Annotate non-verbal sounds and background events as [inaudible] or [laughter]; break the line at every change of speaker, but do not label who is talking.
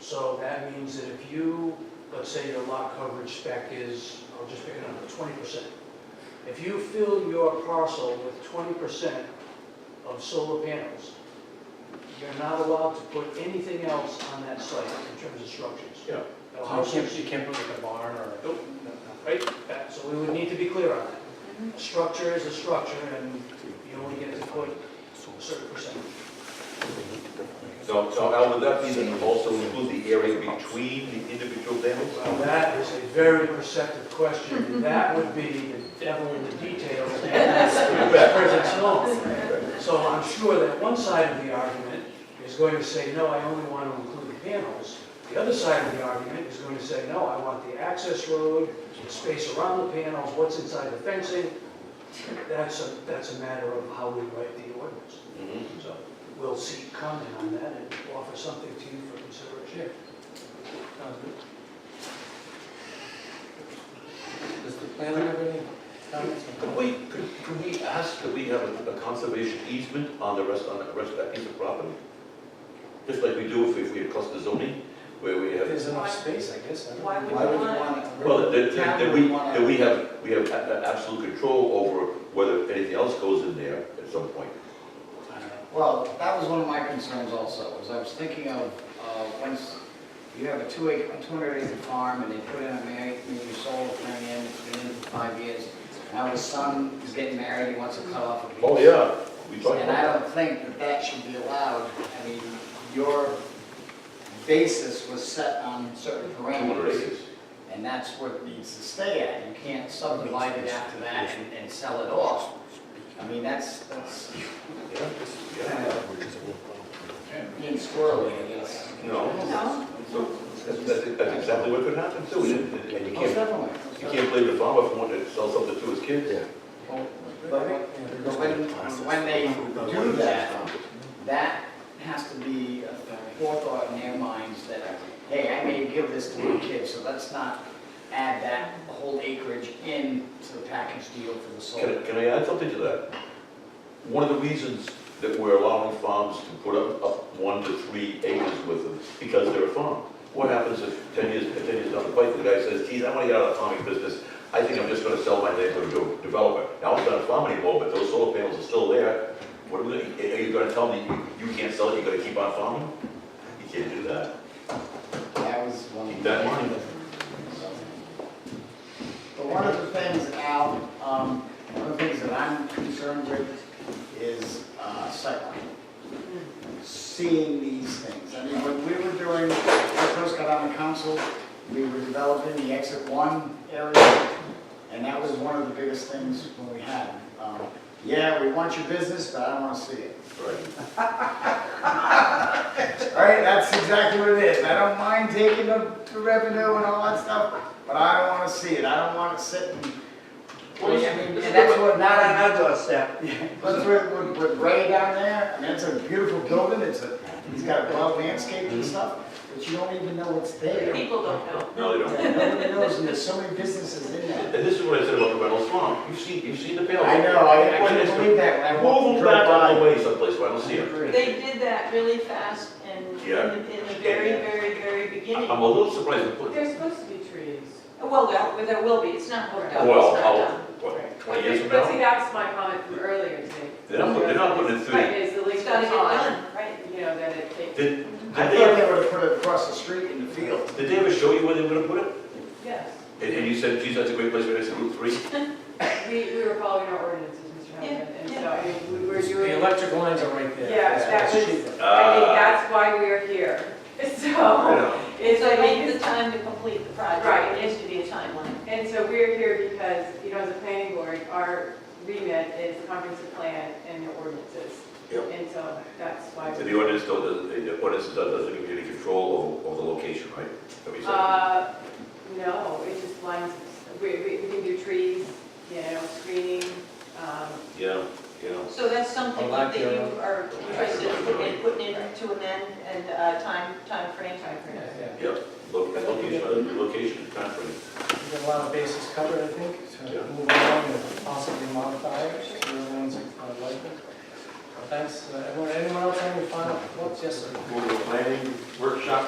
So that means that if you, let's say your lot coverage spec is, I'll just pick a number, twenty percent. If you fill your parcel with twenty percent of solar panels, you're not allowed to put anything else on that site in terms of structures.
Yeah.
No
You
houses,
can't, you can't put like a barn or.
Nope. right? That- So we would need to be clear on that. A structure is a structure, and you only get to put a certain percentage.
So, so Al, would that be then also include the area between the individual panels?
Well, that is a very perceptive question, and that would be the devil in the details, and that's the
Mm-hmm.
president's law. So I'm sure that one side of the argument is going to say, no, I only want to include the panels. The other side of the argument is going to say, no, I want the access road, the space around the panels, what's inside the fencing. That's a, that's a matter of how we write the ordinance.
Mhm.
So we'll seek comment on that and offer something to you for consideration.
Does the planner have any comments?
Could we, could, could we ask that we have a a conservation easement on the rest, on the rest of that piece of property? Just like we do if we, if we have cluster zoning, where we have,
There's enough space, I guess. I don't
Why would
know.
you
Why would you
want-
want it?
well, that, that- that we,
Why
that
would
we
you want
have, we have a- a- absolute control over whether anything else goes in there at some point.
I don't know.
it? Well, that was one of my concerns also, was I was thinking of, uh, once you have a two acre, two hundred acre farm and they put in a married, maybe solar thing in, it's been in for five years. Now his son is getting married, he wants to cut off a piece.
Oh, yeah, we talked
And I
about that.
don't think that that should be allowed. I mean, your basis was set on certain
Two hundred
parameters,
acres.
and that's what it needs to stay at. You can't subdivide it after that and, and sell it off. I mean, that's, that's
Yeah,
kind
yeah.
of being squirrely, I guess. Oh,
No,
No?
so that's, that's, that's exactly what could happen too. And you can't,
Most definitely.
you can't blame the farmer for wanting to sell something to his kids.
Well, But when- but when, when they do that,
Um,
that has to be a forethought in their minds that, hey, I may give this to my kid, so let's not add that whole acreage in to the package deal for the
Can I,
solar.
can I add something to that? One of the reasons that we're allowing farms to put up, up one to three acres with them, because they're a farm. What happens if ten years, if ten years down the pipe, the guy says, geez, I wanna get out of the farming business, I think I'm just gonna sell my neighborhood to a developer. Now, it's not a farm anymore, but those solar panels are still there, what are we, gonna- are you gonna tell me you, you can't sell it, you're gonna keep on farming? You can't do that.
That was one.
Keep that in mind.
But one of the things, Al, um, one of the things that I'm concerned with is uh, sightline. Seeing these things. I mean, when we were doing, when I first got on the council, we were developing the exit one area. And that was one of the biggest things when we had. um, Yeah, we want your business, but I don't want to see it.
Right.
All right, that's exactly what it is. I don't mind taking the the revenue and all that stuff, but I don't want to see it. I don't want it sitting. I mean, and that's what,
Not on our doorstep.
that's what, what- what Ray down there, I mean, it's a beautiful building. It's a, he's got a well landscape and stuff, but you don't even know what's there.
People don't know.
No, they don't.
Nobody knows, and there's so many businesses in there.
And this is what I said about the Reynolds Farm, you've seen, you've seen the panels.
I know, I I
When
couldn't
it's-
believe that when I
Move
walked
them
drove
back on the
by.
way someplace where I don't see them.
They did that really fast and in
Yeah.
the in the very, very, very beginning.
I'm a little surprised they put,
There's supposed to be trees.
Well, there- there will be, it's not hooked up,
well,
it's not
how,
done.
what,
But
twenty years from
see,
now?
that's my comment from earlier, Steve.
They're not put- they're not putting it through.
Right, it's the
It's
least
gotta get
time,
done, right?
you know, that it takes,
Did, did
I
they,
thought
ever-
they would have put it across the street in the field.
did they ever show you where they were gonna put it?
yes.
And, and you said, geez, that's a great place for this Route Three?
We, we were following our ordinances, Mr. Hamlin, and so, I mean, we were
The
doing, I think
electric lines are right there.
Yeah,
That's what's
that was-
cheaper.
Ah,
that's why we are here. [laughs]
you
So,
know.
it's
So I
like,
make the time to complete the project,
Right.
there needs to be a timeline.
And so we're here because, you know, as a planning board, our remit is comprehensive plan and the ordinances.
Yep.
And so that's why.
And
we're
the ordinance though, doesn't, the ordinance doesn't, doesn't give you any control over, over the location, right? That we said.
Uh, no, it just lines, we, we we can do trees, you know, screening, um,
Yeah, yeah.
So that's something
I like
that you
your-
are interested in putting in, putting in to amend and uh, time, timeframe,
Yeah,
timeframe.
yeah.
Yep, look, location, uh, location, timeframe.
We've got a lot of bases covered, I think,
Yeah.
to move along and possibly modify it, so everyone's uh, like it. Thanks, Uh, everyone, anyone else have any final thoughts? Yes, sir.
Will the planning workshop